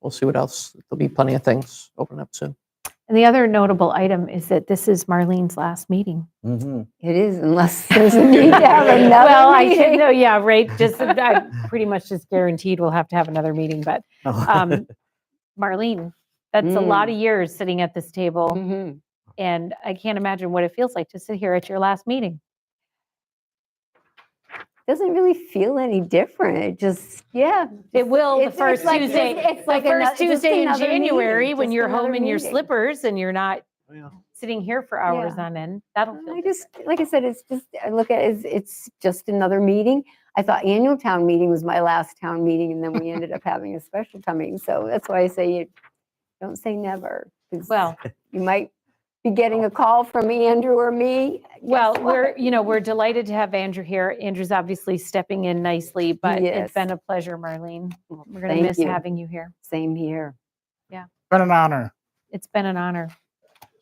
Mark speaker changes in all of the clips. Speaker 1: we'll see what else. There'll be plenty of things open up soon.
Speaker 2: And the other notable item is that this is Marlene's last meeting.
Speaker 1: Mm-hmm.
Speaker 3: Mhm.
Speaker 4: It is unless there's a need to have
Speaker 2: Well,
Speaker 4: another
Speaker 2: I should
Speaker 4: meeting.
Speaker 2: know, yeah, right, just, I'm pretty much just guaranteed we'll have to have another meeting, but um, Marlene, that's a lot of years sitting at this table,
Speaker 4: Mhm.
Speaker 2: and I can't imagine what it feels like to sit here at your last meeting.
Speaker 4: Doesn't really feel any different. It just, yeah.
Speaker 2: It will the
Speaker 4: It's-
Speaker 2: first
Speaker 4: it's like- it's-
Speaker 2: Tuesday,
Speaker 4: it's
Speaker 2: the
Speaker 4: like ano-
Speaker 2: first
Speaker 4: just
Speaker 2: Tuesday in
Speaker 4: another meeting,
Speaker 2: January, when
Speaker 4: just
Speaker 2: you're
Speaker 4: another
Speaker 2: home in your
Speaker 4: meeting.
Speaker 2: slippers and you're not
Speaker 1: Yeah.
Speaker 2: sitting here for hours
Speaker 4: Yeah.
Speaker 2: on end. That'll feel
Speaker 4: I
Speaker 2: different.
Speaker 4: just, like I said, it's just, I look at it, as it's just another meeting. I thought annual town meeting was my last town meeting, and then we ended up having a special town meeting. So that's why I say you don't say never. 'cause
Speaker 2: Well,
Speaker 4: You might be getting a call from Andrew or me.
Speaker 2: well,
Speaker 4: Guess what?
Speaker 2: we're, you know, we're delighted to have Andrew here. Andrew's obviously stepping in nicely, but it's
Speaker 4: Yes.
Speaker 2: been a pleasure, Marlene. We're going to
Speaker 4: Thank
Speaker 2: miss
Speaker 4: you.
Speaker 2: having you here.
Speaker 4: Same here.
Speaker 3: Been an honor.
Speaker 2: It's been an honor.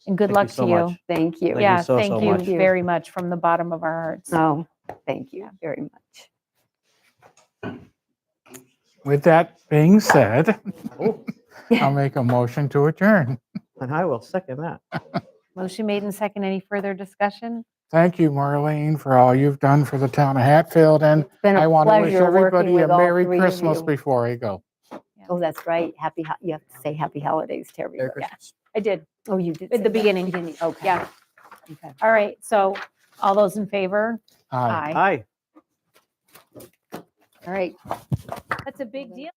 Speaker 2: And good
Speaker 3: Thank you
Speaker 2: luck
Speaker 3: so
Speaker 2: to you.
Speaker 3: much.
Speaker 4: Thank you.
Speaker 3: you
Speaker 2: Yeah,
Speaker 3: so,
Speaker 2: thank
Speaker 3: so
Speaker 2: you Uh,
Speaker 3: much.
Speaker 2: very much from the bottom of our hearts.
Speaker 4: Oh, thank you very much.
Speaker 5: With that being said, I'll make a motion to adjourn.
Speaker 1: And I will second that.
Speaker 2: Motion made and second. Any further discussion?
Speaker 5: Thank you, Marlene, for all you've done for the town of Hatfield, and
Speaker 4: It's been a
Speaker 5: I want to wish
Speaker 4: pleasure working
Speaker 5: everybody a
Speaker 4: with all
Speaker 5: Merry
Speaker 4: three of
Speaker 5: Christmas
Speaker 4: you.
Speaker 5: before I go.
Speaker 4: Oh, that's right. Happy, ho- you have to say happy holidays to everybody.
Speaker 2: I did,
Speaker 4: Oh, you did.
Speaker 2: at
Speaker 4: say
Speaker 2: the
Speaker 4: that.
Speaker 2: beginning.
Speaker 4: Okay.
Speaker 2: Yeah.
Speaker 4: Okay.
Speaker 2: All right, so all those in favor?
Speaker 5: Aye.
Speaker 1: Hi.
Speaker 4: All right.
Speaker 2: That's a big deal.